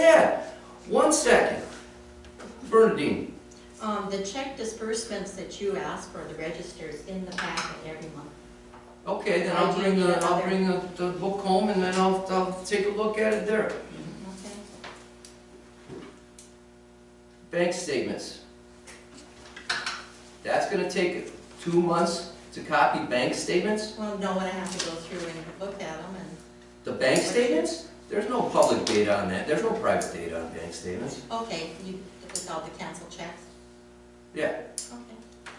that? One second. Bernadine, Um, the check disbursements that you asked for, the registers in the packet every month. okay, then I'll I do bring need the, I'll another. bring the, the book home and then I'll, I'll take a look at it there. Okay. Bank statements. That's gonna take two months to copy bank statements? Well, no, and I have to go through and look at them and, The bank statements? There's no public data on that, there's no private data on bank statements. okay, you, if it's all the canceled checks? Yeah, Okay.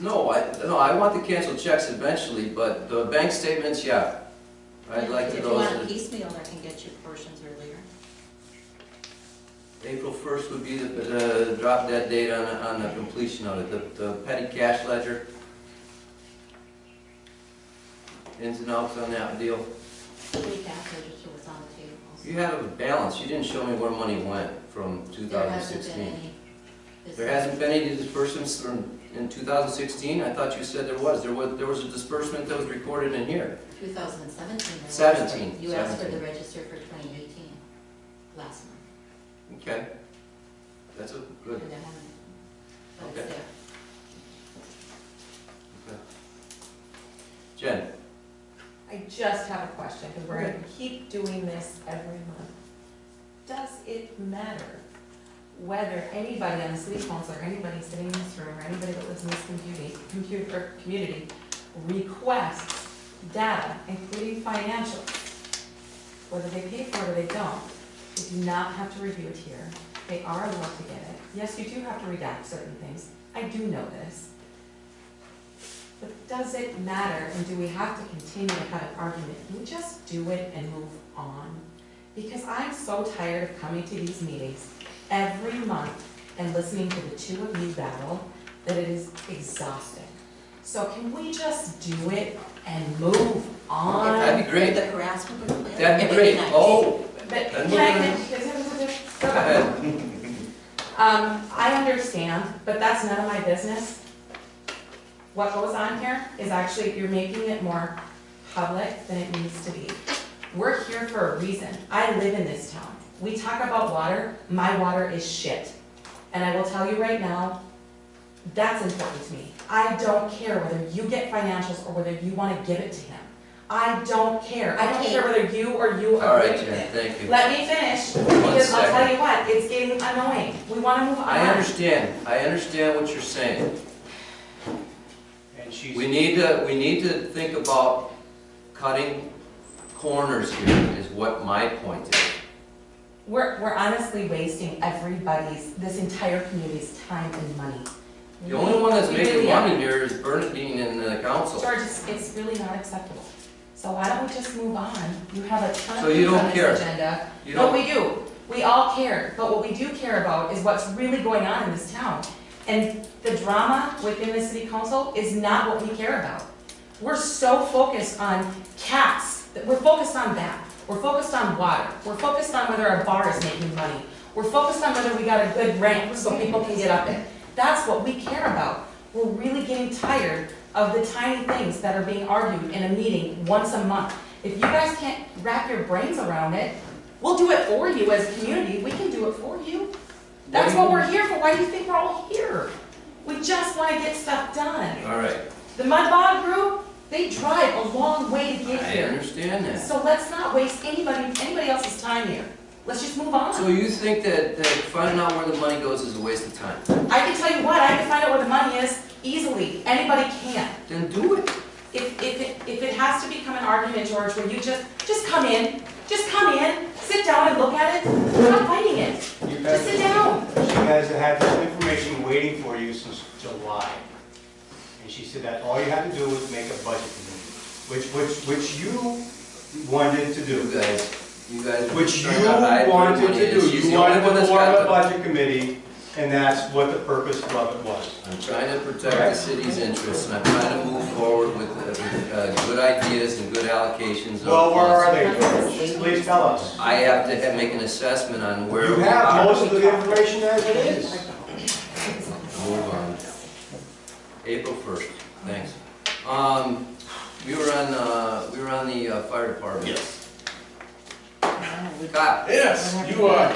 no, I, no, I want to cancel checks eventually, but the bank statements, yeah. I'd like to If you those. want piecemeal, I can get you portions earlier. April 1st would be the, the drop dead date on, the- on the completion of it, the, the petty cash ledger. Ins and outs on that deal. The week after, just so it's on the table. You have a balance, you didn't show me where money went from There hasn't been 2016. any. this- There hasn't been any disbursements from, in 2016? I thought you said there was, there was, there was a disbursement that was recorded in here. 2017. there was- 17, You asked for the 17. register for 2018, last month. Okay. That's a good, and I haven't- But it's Okay. there. Jen, I just have a question, because we're gonna keep doing this every month. Does it matter whether anybody on the city council, or anybody sitting in this room, or anybody that lives in this community, computer, or community, requests data, including financial? Whether they pay for it or they don't, they do not have to review it here, they are allowed to get it. Yes, you do have to redact certain things, I do know this. But does it matter, and do we have to continue to have an argument? Can we just do it and move on? Because I'm so tired of coming to these meetings every month and listening to the two of you battle, that it is exhausting. So can we just do it and move on? that'd be If great, The harassment would quit. that'd be it'd great. nice. Oh, But And can we're I, gonna- can I- go ahead. Um, I understand, but that's none of my business. What goes on here is actually, you're making it more public than it needs to be. We're here for a reason. I live in this town. We talk about water, my water is shit. And I will tell you right now, that's important to me. I don't care whether you get financials or whether you wanna give it to him. I don't care. I don't care whether you or you all agree right, with Jen, it. thank you. Let me finish, because I'll tell you what, it's getting annoying. We wanna move on. I understand, I understand what you're saying. And she's, We need to, we need to think about cutting corners here, is what my point is. We're, we're honestly wasting everybody's, this entire community's time and money. The only one that's We making really are. money here is Bernadine and the council. George, it's, it's really not acceptable. So why don't we just move on? You have a ton So of you things don't on care. this agenda. You But know, we do. We all care, but what we do care about is what's really going on in this town. And the drama within the city council is not what we care about. We're so focused on cats, that we're focused on that. We're focused on water. We're focused on whether a bar is making money. We're focused on whether we got a good ramp so people can get up it. That's what we care about. We're really getting tired of the tiny things that are being argued in a meeting once a month. If you guys can't wrap your brains around it, We'll do it for you as a community, we can do it for you. That's what we're here for, why do you think we're all here? We just wanna get stuff done. all right, The Mud Bog group, they drive a long way to get I here. understand that. So let's not waste anybody, anybody else's time here. Let's just move So on. you think that, that finding out where the money goes is a waste of time? I can tell you what, I can find out where the money is easily, anybody can. Then do it. If, if, it- if it has to become an argument, George, where you just, just come in, just come in, sit down and look at it, stop fighting it, you just sit guys, down. she has had this information waiting for you since July. And she said that all you had to do was make a budget meeting, which, which, which you wanted to You do. guys, you guys. Which you turned out I had good wanted money. to do. She's You the only wanted one to that's form got a the- budget committee, and that's what the purpose of it was. I'm trying to protect the city's interests, and I'm trying to move forward with, uh, with, uh, good ideas and good allocations of Well, where funds. are they, George? Please tell us. I have to ha- make an assessment on where You we have are. most of the information as it is. Move on. April first, thanks. Um, we were on, uh, we were on the uh, fire department. Yes. Scott? Yes, you are.